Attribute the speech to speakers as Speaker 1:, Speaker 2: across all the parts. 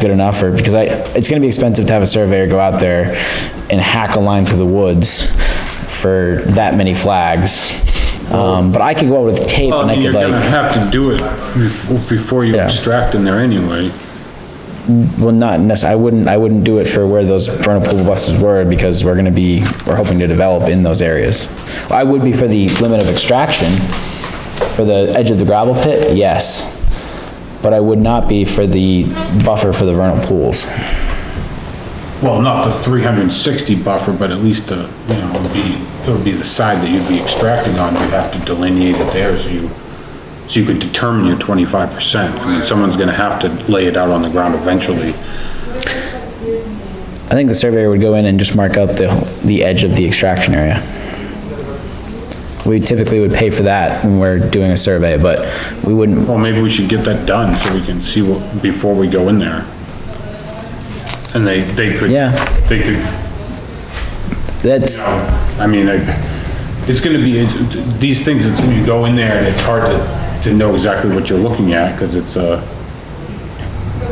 Speaker 1: good enough or, because I, it's gonna be expensive to have a surveyor go out there and hack a line through the woods for that many flags. Um, but I could go out with tape
Speaker 2: Well,
Speaker 1: and
Speaker 2: I
Speaker 1: I
Speaker 2: mean, you're
Speaker 1: could
Speaker 2: gonna
Speaker 1: like,
Speaker 2: have to do it bef- before you
Speaker 1: Yeah.
Speaker 2: extract in there anyway.
Speaker 1: well, not necess, I wouldn't, I wouldn't do it for where those vernal pool buses were because we're gonna be, we're hoping to develop in those areas. I would be for the limit of extraction, for the edge of the gravel pit, yes. But I would not be for the buffer for the vernal pools.
Speaker 2: Well, not the three hundred and sixty buffer, but at least the, you know, it would be, it would be the side that you'd be extracting on, you'd have to delineate it there so you, so you could determine your twenty-five percent. I mean, someone's gonna have to lay it out on the ground eventually.
Speaker 1: I think the surveyor would go in and just mark up the, the edge of the extraction area. We typically would pay for that when we're doing a survey, but we wouldn't,
Speaker 2: Well, maybe we should get that done so we can see what, before we go in there. And they, they could.
Speaker 1: Yeah.
Speaker 2: They could
Speaker 1: that's,
Speaker 2: I mean, I, it's gonna be, it's- these things, it's, when you go in there, and it's hard to, to know exactly what you're looking at, cause it's a,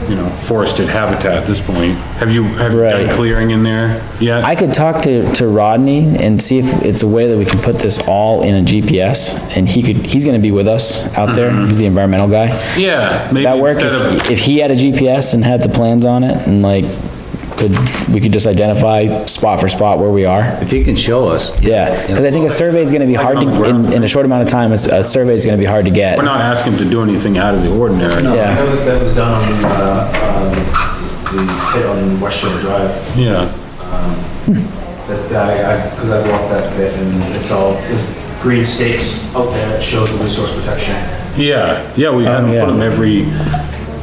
Speaker 2: you know, forested habitat at this point. Have you, have you
Speaker 1: Right.
Speaker 2: done clearing in there yet?
Speaker 1: I could talk to, to Rodney and see if it's a way that we can put this all in a GPS, and he could, he's gonna be with us out there, he's the environmental guy.
Speaker 2: Yeah, Mm-hmm. maybe
Speaker 1: That work,
Speaker 2: instead of,
Speaker 1: if, if he had a GPS and had the plans on it, and like, could, we could just identify spot for spot where we are.
Speaker 3: If you can show us.
Speaker 1: Yeah, because I think a survey is gonna be hard to, in, in a short amount of time, a, s- a survey is gonna be hard to get.
Speaker 2: we're not asking to do anything out of the ordinary.
Speaker 4: No,
Speaker 1: Yeah.
Speaker 4: I know that that was done on, uh, um, the pit on West Shore Drive,
Speaker 2: Yeah,
Speaker 4: that I, I, because I walked that bit and it's all, there's green stakes out there that show the resource protection.
Speaker 2: yeah, yeah, we have
Speaker 1: Um, yeah.
Speaker 2: put them every,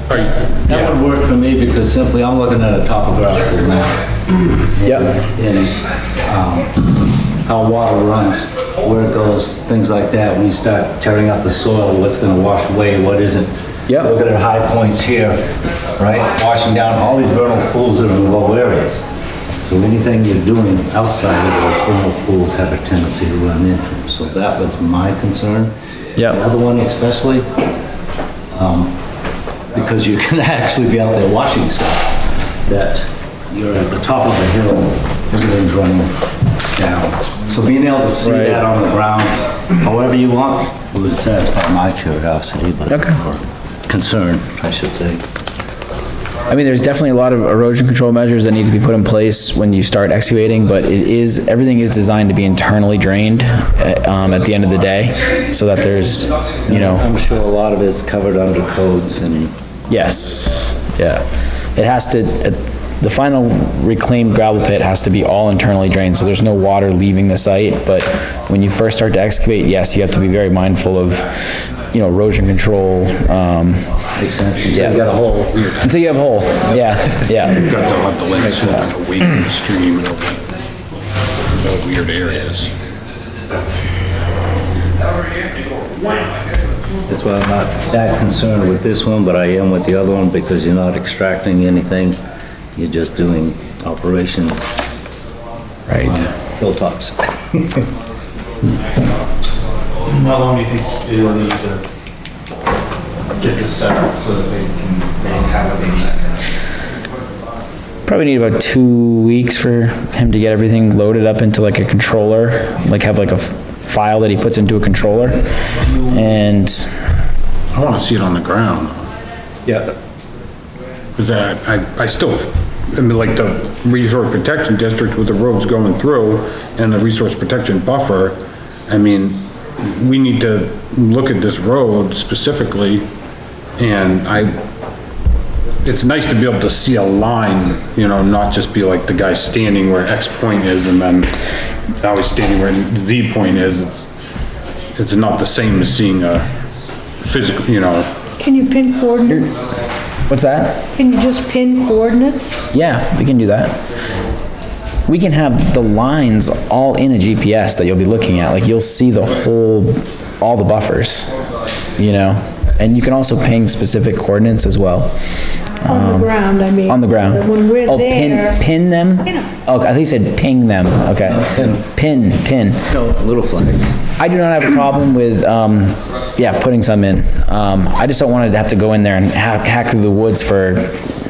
Speaker 2: are you-
Speaker 3: That would work for me because simply I'm looking at a topographical map
Speaker 1: Yep.
Speaker 3: and, um, how water runs, where it goes, things like that. When you start tearing up the soil, what's gonna wash away, what isn't.
Speaker 1: Yep.
Speaker 3: Looking at high points here, right, washing down all these vernal pools that are in low areas. So anything you're doing outside of those vernal pools have a tendency to run into them. So that was my concern.
Speaker 1: Yep.
Speaker 3: The other one especially, because you can actually be out there washing stuff, that you're at the top of the hill, everything's running down. So being able to see that on the ground, however you want, uh, would satisfy my curiosity, but,
Speaker 1: Okay.
Speaker 3: or concern, I should say.
Speaker 1: I mean, there's definitely a lot of erosion control measures that need to be put in place when you start excavating, but it is, everything is designed to be internally drained, uh, um, at the end of the day, so that there's, you know,
Speaker 3: I'm sure a lot of it's covered under codes and
Speaker 1: yes, yeah. It has to, uh, the final reclaimed gravel pit has to be all internally drained, so there's no water leaving the site, but when you first start to excavate, yes, you have to be very mindful of, you know, erosion control, um,
Speaker 3: makes sense. You got a whole,
Speaker 1: until you have a hole, yeah, yeah.
Speaker 2: got to let the lake sit on the weight of the stream and all that, all weird areas.
Speaker 3: that's why I'm not that concerned with this one, but I am with the other one because you're not extracting anything. You're just doing operations,
Speaker 1: Right.
Speaker 3: hilltops.
Speaker 4: How long do you think it'll need to get this set up so that they can, they have what they need?
Speaker 1: Probably need about two weeks for him to get everything loaded up into like a controller, like have like a f- file that he puts into a controller. And
Speaker 2: I wanna see it on the ground.
Speaker 3: Yeah.
Speaker 2: Cause I, I, I still, I mean, like the resource protection district with the roads going through and the resource protection buffer, I mean, we need to look at this road specifically and I, it's nice to be able to see a line, you know, not just be like the guy standing where X point is and then now he's standing where Z point is. It's, it's not the same as seeing a physical, you know,
Speaker 5: Can you pin coordinates?
Speaker 1: what's that?
Speaker 5: Can you just pin coordinates?
Speaker 1: Yeah, we can do that. We can have the lines all in a GPS that you'll be looking at. Like you'll see the whole, all the buffers, you know? And you can also ping specific coordinates as well.
Speaker 5: On the ground, I mean.
Speaker 1: Um, On the ground.
Speaker 5: So that When we're
Speaker 1: Oh, pin-
Speaker 5: there,
Speaker 1: Pin them?
Speaker 5: Pin 'em.
Speaker 1: Oh, I think you said ping them, okay. Pin, pin.
Speaker 3: No, little flags.
Speaker 1: I do not have a problem with, um, yeah, putting some in. Um, I just don't want to have to go in there and hack, hack through the woods for